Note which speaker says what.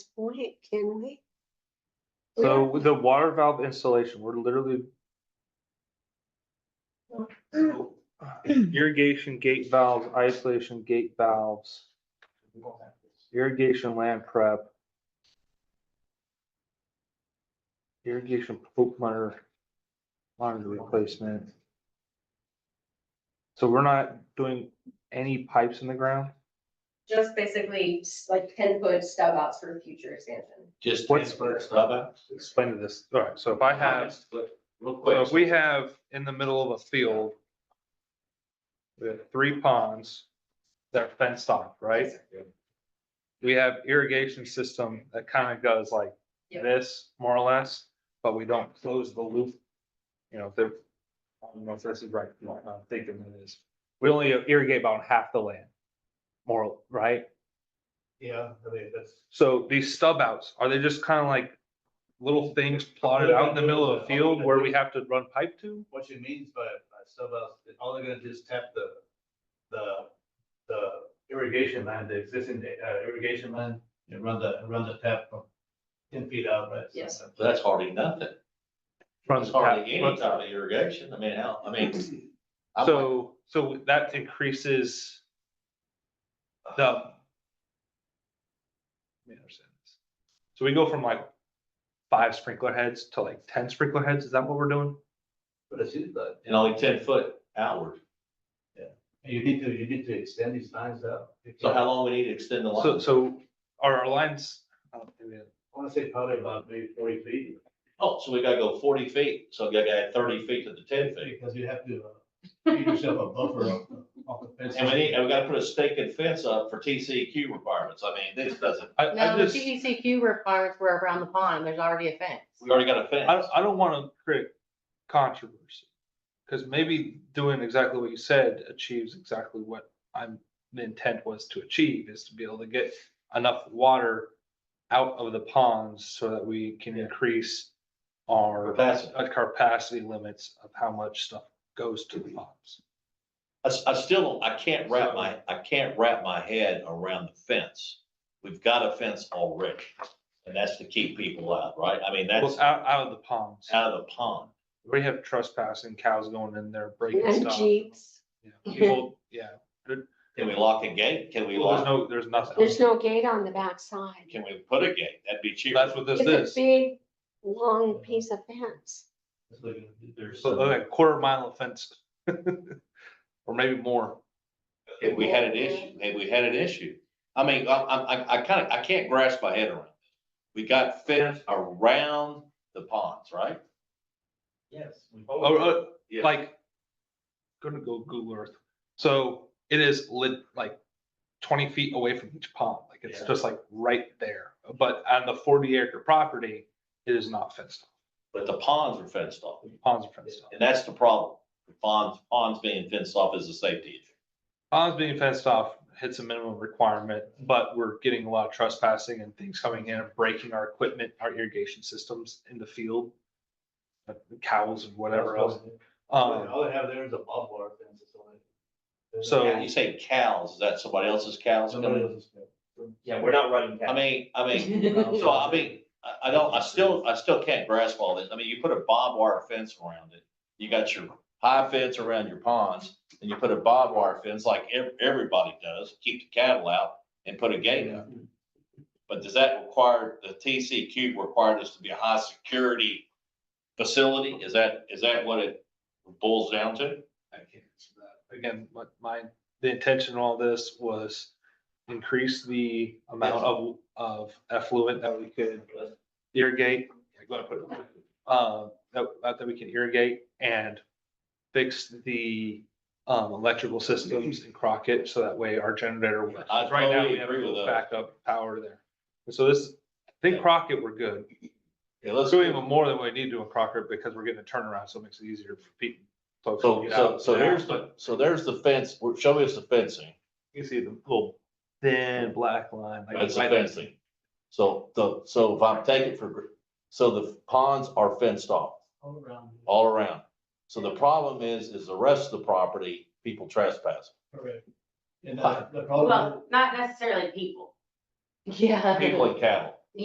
Speaker 1: point, can we? We
Speaker 2: So
Speaker 1: don't-
Speaker 2: with the water valve installation, we're literally. Irrigation gate valves, isolation gate valves, irrigation land prep. Irrigation poop monitor, monitor replacement. So we're not doing any pipes in the ground?
Speaker 3: Just basically s- like ten foot stub outs for future expansion.
Speaker 4: Just
Speaker 2: What's-
Speaker 4: transfer stuff out.
Speaker 2: Explain this. All right, so if I have,
Speaker 4: Real
Speaker 2: so if
Speaker 4: quick,
Speaker 2: we have in the middle of a field. We have three ponds that are fenced off, right? We have irrigation system that kind of goes like
Speaker 3: Yeah.
Speaker 2: this, more or less, but we don't close the loop. You know, if they're, I don't know if this is right, I'm thinking it is. We only irrigate about half the land. More, right?
Speaker 5: Yeah, I mean, that's.
Speaker 2: So these stub outs, are they just kind of like little things plotted out in the middle of a field where we have to run pipe to?
Speaker 5: what she means by, by sub out, is all they're gonna do is tap the, the, the irrigation line, the existing uh, irrigation line, and run the, run the tap from ten feet out, right?
Speaker 3: Yes.
Speaker 4: that's hardly nothing.
Speaker 2: Run
Speaker 4: That's
Speaker 2: the tap-
Speaker 4: hardly any
Speaker 2: run-
Speaker 4: type of irrigation. I mean, how, I mean. I'm like,
Speaker 2: So, so that increases the. Let me understand this. So we go from like five sprinkler heads to like ten sprinkler heads, is that what we're doing?
Speaker 5: But it's, you, but
Speaker 4: And only ten foot outward.
Speaker 5: you need to, you need to extend these lines out. You
Speaker 4: So
Speaker 5: can't-
Speaker 4: how long we need to extend the
Speaker 2: So,
Speaker 4: line?
Speaker 2: so are our lines? I don't think they-
Speaker 5: I wanna say probably about maybe forty feet,
Speaker 4: Oh, so we gotta go forty feet. So you gotta add thirty feet to the ten feet.
Speaker 5: because you have to, uh, give yourself a buffer off the- off the fence.
Speaker 4: And we need, and we gotta put a stake and fence up for TCEQ requirements. I mean, this doesn't,
Speaker 2: I, I
Speaker 6: No, the
Speaker 2: just,
Speaker 6: CDCQ requirements were around the pond, there's already a fence.
Speaker 4: we already got a
Speaker 2: I,
Speaker 4: fence.
Speaker 2: don't- I don't wanna create controversy. Cause maybe doing exactly what you said achieves exactly what I'm, the intent was to achieve, is to be able to get enough water out of the ponds so that we can
Speaker 5: Yeah.
Speaker 2: increase our
Speaker 4: Capacity.
Speaker 2: uh, capacity limits of how much stuff goes to the ponds.
Speaker 4: I, s- I still, don't- I can't wrap my, I can't wrap my head around the fence. We've got a fence already, and that's to keep people out, right? I mean, that's
Speaker 2: Well, out, out of the ponds.
Speaker 4: out of the pond.
Speaker 2: We have trespassing cows going in there breaking
Speaker 1: And
Speaker 2: stuff.
Speaker 1: Jeeps,
Speaker 2: Yeah, People, yeah,
Speaker 4: Can we lock a gate? Can we
Speaker 2: well, there's
Speaker 4: lock,
Speaker 2: no, there's nothing.
Speaker 1: there's no gate on the backside.
Speaker 4: can we put a gate? That'd be cheaper.
Speaker 2: That's what this
Speaker 1: It's a
Speaker 2: is.
Speaker 1: big, long piece of fence.
Speaker 5: It's like- There's.
Speaker 2: So
Speaker 5: some-
Speaker 2: like a quarter mile of fence. Or maybe more.
Speaker 4: If we had an issue, if we had an issue. I mean, I, I, I- I kind of, I can't grasp my head around. it. We got fence around the ponds, right?
Speaker 5: Yes. we-
Speaker 2: Oh, oh,
Speaker 4: Yeah.
Speaker 2: like, gonna go Google Earth. So it is lit like twenty feet away from each pond. Like it's
Speaker 5: Yeah.
Speaker 2: just like right there. But on the forty acre property, it is not fenced off.
Speaker 4: But the ponds are fenced off,
Speaker 2: The Ponds are fenced off.
Speaker 4: and that's the problem. The Ponds, ponds being fenced off is a safety issue.
Speaker 2: Ponds being fenced off hits a minimum requirement, but we're getting a lot of trespassing and things coming in and breaking our equipment, our irrigation systems in the field. uh, Cows and whatever else. Um,
Speaker 5: All they have there is a barbed wire fence. that's all they-
Speaker 2: So-
Speaker 4: Yeah, You say cows, is that somebody else's cows?
Speaker 5: Somebody else's fence.
Speaker 7: Yeah, we're not running.
Speaker 4: I mean, I mean, so I mean, I, I don't, I still, I still can't grasp all this. I mean, you put a barbed wire fence around it. You got your high fence around your ponds and you put a barbed wire fence like ev- everybody does, keep the cattle out and put a gate up. But does that require, the TCQ required this to be a high security facility? Is that, is that what it boils down to?
Speaker 2: I can't answer that. Again, what my, the intention of all this was increase the amount of, of effluent that we could irrigate. Uh, that, that we can irrigate and fix the, um, electrical systems in Crockett, so that way our generator works.
Speaker 4: I
Speaker 2: Right now, we
Speaker 4: totally
Speaker 2: have
Speaker 4: agree with
Speaker 2: no
Speaker 4: that.
Speaker 2: backup power there. And so this, I think Crockett, we're good.
Speaker 4: Yeah,
Speaker 2: Let's do even more than we need to in Crockett because we're getting a turnaround, so it makes it easier for people. folks to
Speaker 4: So,
Speaker 2: get
Speaker 4: so,
Speaker 2: out.
Speaker 4: so here's the, so there's the fence. Show us the fencing.
Speaker 2: You can see the little thin black line. like
Speaker 4: That's the
Speaker 2: right there.
Speaker 4: fencing. So the, so if I'm taking for, gr- so the ponds are fenced off
Speaker 5: All around.
Speaker 4: all around. So the problem is, is the rest of the property, people trespassing.
Speaker 5: Correct. And the, the problem,
Speaker 6: not necessarily people. Yeah.
Speaker 4: People and cattle.